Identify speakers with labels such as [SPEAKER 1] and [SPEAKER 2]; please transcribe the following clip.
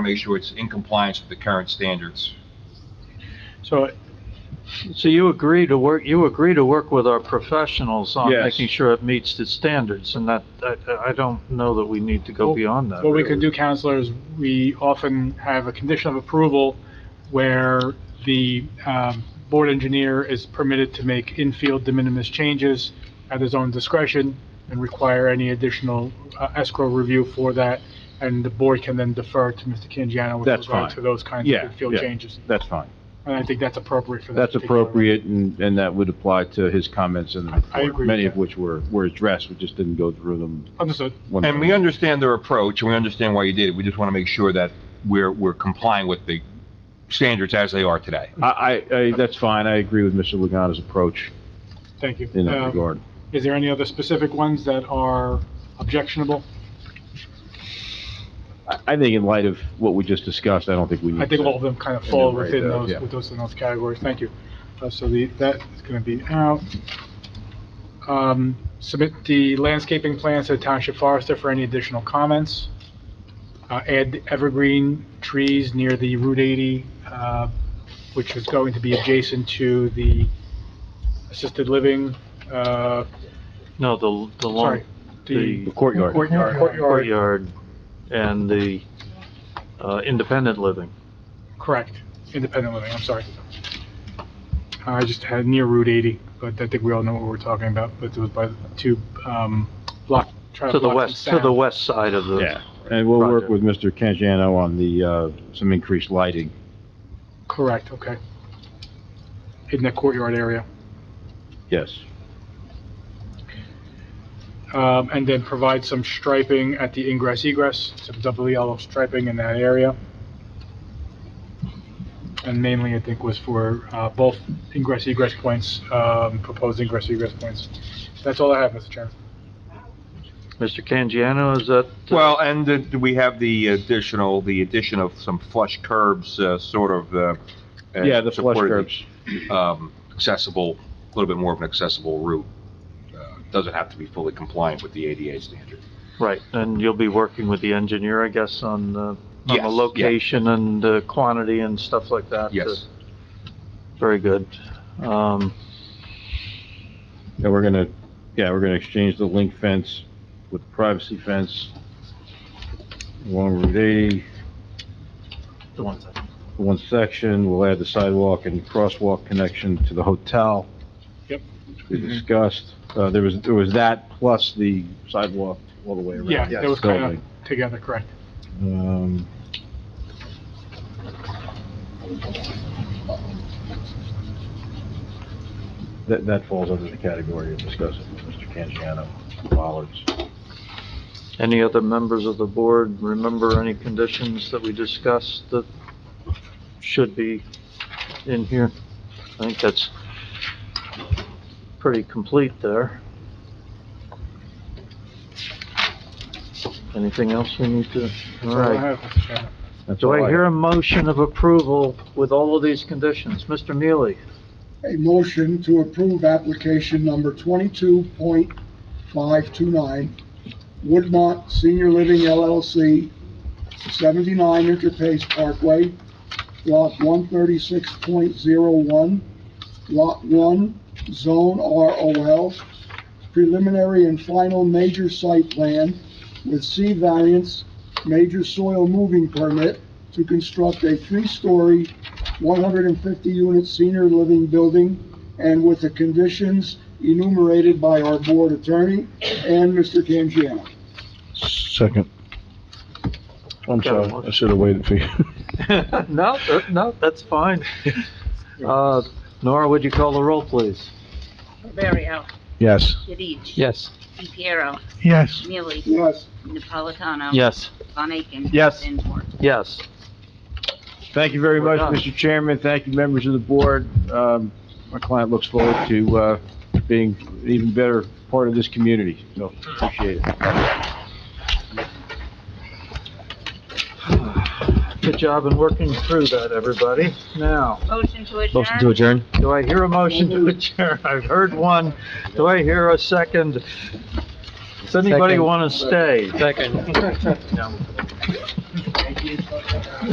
[SPEAKER 1] make sure it's in compliance with the current standards.
[SPEAKER 2] So, so you agree to work, you agree to work with our professionals on
[SPEAKER 3] Yes.
[SPEAKER 2] making sure it meets the standards, and that, I, I don't know that we need to go
[SPEAKER 3] Well,
[SPEAKER 2] beyond that.
[SPEAKER 3] What we can do,
[SPEAKER 2] really.
[SPEAKER 3] Counselor, is we often have a condition of approval where the um, board engineer is permitted to make infield de minimis changes at his own discretion and require any additional uh, escrow review for that, and the board can then defer to Mr. Canjiano with
[SPEAKER 4] That's
[SPEAKER 3] regard
[SPEAKER 4] fine.
[SPEAKER 3] to those kinds of
[SPEAKER 4] Yeah,
[SPEAKER 3] infield
[SPEAKER 4] yeah.
[SPEAKER 3] changes.
[SPEAKER 4] That's fine.
[SPEAKER 3] And I think that's appropriate for that.
[SPEAKER 4] That's
[SPEAKER 3] particular-
[SPEAKER 4] appropriate, and, and that would apply to his comments in the
[SPEAKER 3] I- I agree
[SPEAKER 4] report,
[SPEAKER 3] with
[SPEAKER 4] many of
[SPEAKER 3] that.
[SPEAKER 4] which were, were addressed, we just didn't go through them.
[SPEAKER 3] Understood.
[SPEAKER 4] one
[SPEAKER 1] And
[SPEAKER 4] by
[SPEAKER 1] we
[SPEAKER 4] one.
[SPEAKER 1] understand their approach, and we understand why you did it. We just want to make sure that we're, we're complying with the standards as they are today.
[SPEAKER 4] I, I, I- that's fine, I agree with Mr. Lagana's approach
[SPEAKER 3] Thank you.
[SPEAKER 4] in that
[SPEAKER 3] Um,
[SPEAKER 4] regard.
[SPEAKER 3] Is there any other specific ones that are objectionable?
[SPEAKER 4] I, I think in light of what we just discussed, I don't think we need to.
[SPEAKER 3] I think all of them kind of fall
[SPEAKER 4] Enumerate
[SPEAKER 3] within
[SPEAKER 4] those,
[SPEAKER 3] those,
[SPEAKER 4] yeah.
[SPEAKER 3] with those, in those categories, thank you. Uh, so the, that is gonna be out. Um, submit the landscaping plans to the township forester for any additional comments. Uh, add evergreen trees near the Route eighty, uh, which is going to be adjacent to the assisted living, uh,
[SPEAKER 2] No, the, the long
[SPEAKER 3] sorry, the.
[SPEAKER 4] The courtyard.
[SPEAKER 3] Courtyard. Courtyard,
[SPEAKER 2] courtyard and the, uh, independent living.
[SPEAKER 3] correct, independent living, I'm sorry. I just had near Route 80, but I think we all know what we're talking about, but it was by the two, um, block,
[SPEAKER 2] To
[SPEAKER 3] traffic
[SPEAKER 2] the
[SPEAKER 3] blocks and
[SPEAKER 2] west, to the
[SPEAKER 3] sound.
[SPEAKER 2] west side of the,
[SPEAKER 4] Yeah, and we'll work
[SPEAKER 2] Project.
[SPEAKER 4] with Mr. Canjiano on the, uh, some increased lighting.
[SPEAKER 3] Correct, okay. In that courtyard area,
[SPEAKER 4] Yes,
[SPEAKER 3] um, and then provide some striping at the ingress egress, some double yellow striping in that area. And mainly, I think, was for, uh, both ingress egress points, um, proposed ingress egress points. That's all I have, Mr. Chairman.
[SPEAKER 2] Mr. Canjiano, is that? uh,
[SPEAKER 1] Well, and the- we have the additional, the addition of some flush curbs, uh, sort of, uh... uh,
[SPEAKER 4] yeah, the flush
[SPEAKER 1] supported
[SPEAKER 4] curbs.
[SPEAKER 1] um, accessible, a little bit more of an accessible route. Uh, Doesn't have to be fully compliant with the ADA standard.
[SPEAKER 2] Right, and you'll be working with the engineer, I guess, on, uh, on
[SPEAKER 1] Yes,
[SPEAKER 2] the
[SPEAKER 1] yeah.
[SPEAKER 2] location and the quantity and stuff like that?
[SPEAKER 1] Yes.
[SPEAKER 2] Very good. Um,
[SPEAKER 4] And we're gonna, yeah, we're gonna exchange the link fence with privacy fence along Route 80. The one section, we'll add the sidewalk and crosswalk connection to the hotel.
[SPEAKER 3] Yep.
[SPEAKER 4] We discussed, uh, there was, there was that plus the sidewalk all the way around.
[SPEAKER 3] Yeah, that was kind
[SPEAKER 4] Building.
[SPEAKER 3] of together, correct.
[SPEAKER 4] Um, That, that falls under the category of discussing with Mr. Canjiano, Bollards.
[SPEAKER 2] Any other members of the board remember any conditions that we discussed that should be in here? I think that's pretty complete there. Anything else we need to?
[SPEAKER 3] That's
[SPEAKER 2] All
[SPEAKER 3] all I
[SPEAKER 2] right.
[SPEAKER 3] have, Mr. Chairman.
[SPEAKER 4] That's
[SPEAKER 2] Do
[SPEAKER 4] all
[SPEAKER 2] I hear a motion of approval with all of these conditions? Mr. Neely,
[SPEAKER 5] A motion to approve application number twenty-two point five two nine, Woodmont Senior Living LLC, seventy-nine Interpace Parkway, lot one thirty-six point zero one, lot one, zone ROL, preliminary and final major site plan with C variance, major soil moving permit to construct a three-story, 150-unit senior living building, and with the conditions enumerated by our board attorney and Mr. Canjiano.
[SPEAKER 4] Second.
[SPEAKER 2] Got
[SPEAKER 4] I'm
[SPEAKER 2] a
[SPEAKER 4] sorry, I
[SPEAKER 2] motion.
[SPEAKER 4] should have waited for you.
[SPEAKER 2] No, uh, no, that's fine. Uh, Nora, would you call the roll, please?
[SPEAKER 6] Barrio,
[SPEAKER 4] Yes.
[SPEAKER 6] Goodich.
[SPEAKER 2] Yes.
[SPEAKER 6] Piero,
[SPEAKER 4] Yes.
[SPEAKER 6] Neely,
[SPEAKER 5] Yes,
[SPEAKER 6] Napolitano.
[SPEAKER 2] Yes.
[SPEAKER 6] Von Aiken.
[SPEAKER 4] Yes.
[SPEAKER 6] Zandvor.
[SPEAKER 2] Yes.
[SPEAKER 4] Thank you very
[SPEAKER 2] We're
[SPEAKER 4] much,
[SPEAKER 2] done.
[SPEAKER 4] Mr. Chairman. Thank you, members of the board. Um, my client looks forward to, uh, being an even better part of this community, so appreciate it.
[SPEAKER 2] Good job in working through that, everybody. Now,
[SPEAKER 6] Motion to adjourn.
[SPEAKER 7] Motion to adjourn?
[SPEAKER 2] do I hear a motion to adjourn? I've heard one. Do I hear a second? Does anybody
[SPEAKER 7] Second.
[SPEAKER 2] want to stay?
[SPEAKER 7] Second.